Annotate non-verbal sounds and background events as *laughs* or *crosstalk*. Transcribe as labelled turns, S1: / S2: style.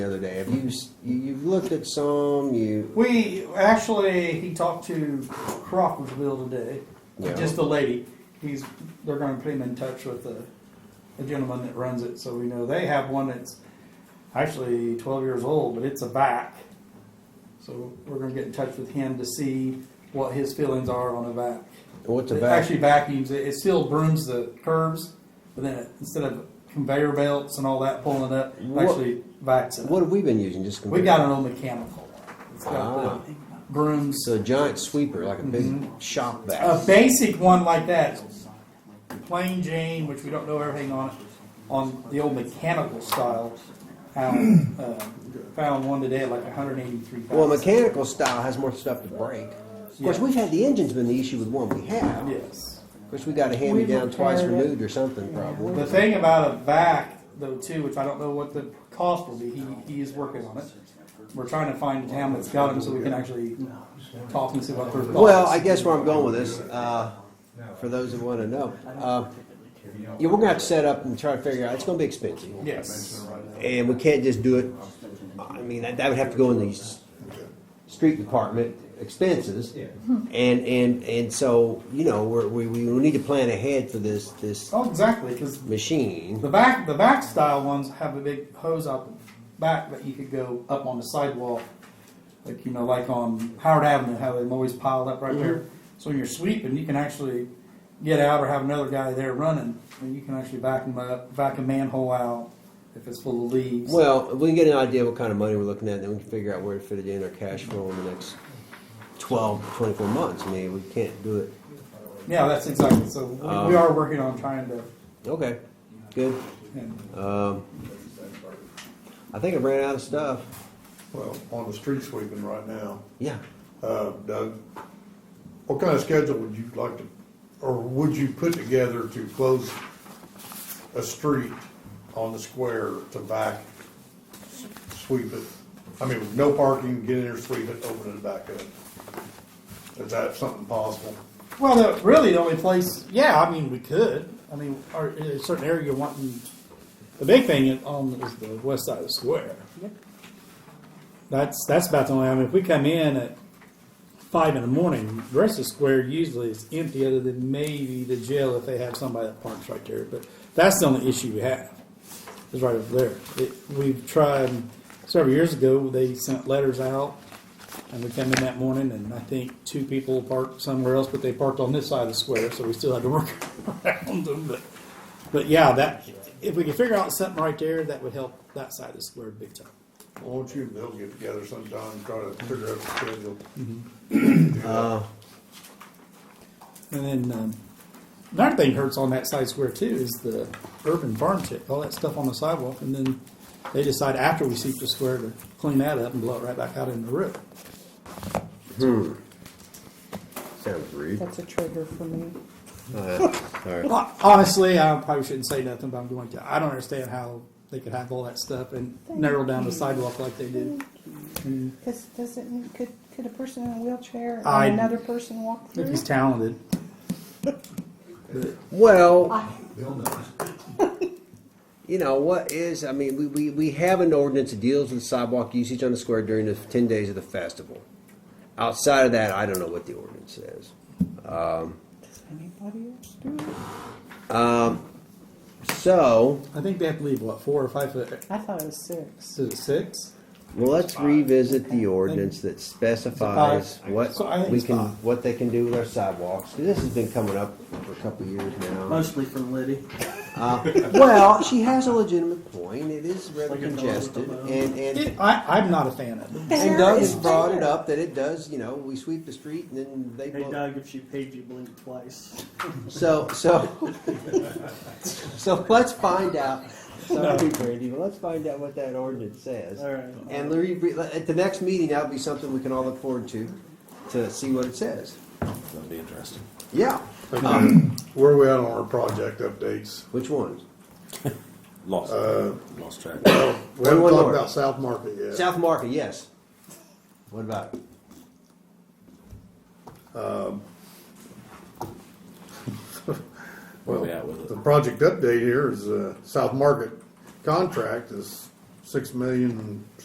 S1: the other day. Have you, s- you- you've looked at some, you,
S2: We actually, he talked to Crockersville today,
S1: Yeah.
S2: just the lady. He's they're going to put him in touch with the, the gentleman that runs it, so we know they have one that's actually 12 years old, but it's a vac. So we're going to get in touch with him to see what his feelings are on a vac.
S1: what's a
S2: It
S1: vac?
S2: actually vacuums it. It still brooms the curves, but then it, instead of conveyor belts and all that pulling it up, it
S1: What-
S2: actually vacs it. up.
S1: What have we been using, just
S2: We
S1: compared?
S2: got an old mechanical one. It's got
S1: Ah.
S2: the brooms.
S1: It's a giant sweeper, like a big
S2: Mm-hmm.
S1: shop
S2: A
S1: vac.
S2: basic one like that, plain Jane, which we don't know everything on, on the old mechanical style. Found, uh, found one today at like 183,000.
S1: Well, mechanical style has more stuff to break. Of course,
S2: Yeah.
S1: we've had, the engine's been the issue with one we have. Of
S2: Yes.
S1: course, we got a hand-me-down
S3: repaired
S1: twice
S3: it.
S1: removed or something, probably.
S2: The thing about a vac though too, which I don't know what the cost will be, he, he is working on it. We're trying to find a town that's got them so we can actually talk and see what their thoughts.
S1: Well, I guess where I'm going with this, uh, for those that want to know, uh, yeah, we're gonna have to set up and try to figure out. It's gonna be expensive,
S2: Yes.
S1: and we can't just do it. I mean, that, that would have to go in the s- street department expenses, and and and so you know we're, we we need to plan ahead for this this
S2: Oh, exactly, because
S1: machine.
S2: The back, the back style ones have a big hose out the back that you could go up on the sidewalk, like you know, like on Howard Avenue, how they've always piled up right there. So when you're sweeping, you can actually get out or have another guy there running, and you can actually back them up, back a manhole out if it's full of leaves.
S1: Well, we can get an idea what kind of money we're looking at, and then we can figure out where to fit it in our cash flow in the next 12 to 24 months. I mean, we can't do it.
S2: yeah, that's exactly. So we, we are working on trying to.
S1: Okay, good.
S2: And
S1: Um, I think I ran out of stuff.
S4: Well, on the street sweeping right now,
S1: Yeah.
S4: uh, Doug, what kind of schedule would you like to, or would you put together to close a street on the square to back sweep it? I mean, with no parking, get in there, sweep it, open it back up. Is that something possible?
S2: well, the, really, the only place. Yeah, I mean, we could. I mean, or a certain area you're wanting. The big thing on is the west side of the square. That's that's about the only. I mean, if we come in at five in the morning, the rest of the square usually is empty, other than maybe the jail if they have somebody that parks right there. But that's the only issue we have is right over there. It, we've tried several years ago. They sent letters out, and we come in that morning, and I think two people parked somewhere else, but they parked on this side of the square, so we still had to work *laughs* around them. But but yeah, that if we could figure out something right there, that would help that side of the square big time.
S4: Won't you and Bill get together sometime, and try to figure out a schedule?
S1: Uh,
S2: And then um, another thing hurts on that side square too is the urban farm tip, all that stuff on the sidewalk, and then they decide after we seep the square to clean that up and blow it right back out in the rip.
S1: sounds *laughs* rude.
S3: That's a trigger for me.
S2: Well, honestly, I probably shouldn't say nothing, but I'm going to. I don't understand how they could have all that stuff and narrow down the sidewalk like they did.
S3: Because doesn't, could, could a person in a wheelchair
S2: I-
S3: and another person walk
S2: If
S3: through?
S2: he's talented,
S1: Well, *laughs* you know, what is, I mean, we, we, we have an ordinance that deals with sidewalk usage on the square during the 10 days of the festival. Outside of that, I don't know what the ordinance says.
S3: Does anybody else do it?
S1: So,
S2: I think they have to leave what four or five foot.
S3: I thought it was six.
S2: Is it six?
S1: let's revisit the ordinance that specifies what
S2: So I think
S1: we
S2: it's
S1: can,
S2: five.
S1: what they can do with our sidewalks. This has been coming up for a couple of years now.
S5: Mostly from Liddy.
S1: Well, she has a legitimate point. It is rather
S5: Like a dog
S1: congested,
S5: with a bone.
S1: and and,
S2: It, I, I'm not a fan of it.
S1: and Doug has brought it up that it does. You know, we sweep the street and then they.
S5: Hey
S1: blow-
S5: Doug, if she paid you, blink twice.
S1: So so *laughs* so let's find out. Sorry, Brandy, but let's find out what that ordinance says.
S5: All right.
S1: And Larry, at the next meeting, that'll be something we can all look forward to, to see what it says.
S6: That'd be interesting.
S1: Yeah.
S4: Where are we at on our project updates?
S1: Which ones?
S6: Lost, lost track.
S4: We haven't
S1: One
S4: talked
S1: more.
S4: about South Market yet.
S1: South Market, yes. What about? it?
S6: Where we at with
S4: The
S6: it?
S4: project update here is, uh, South Market contract is six million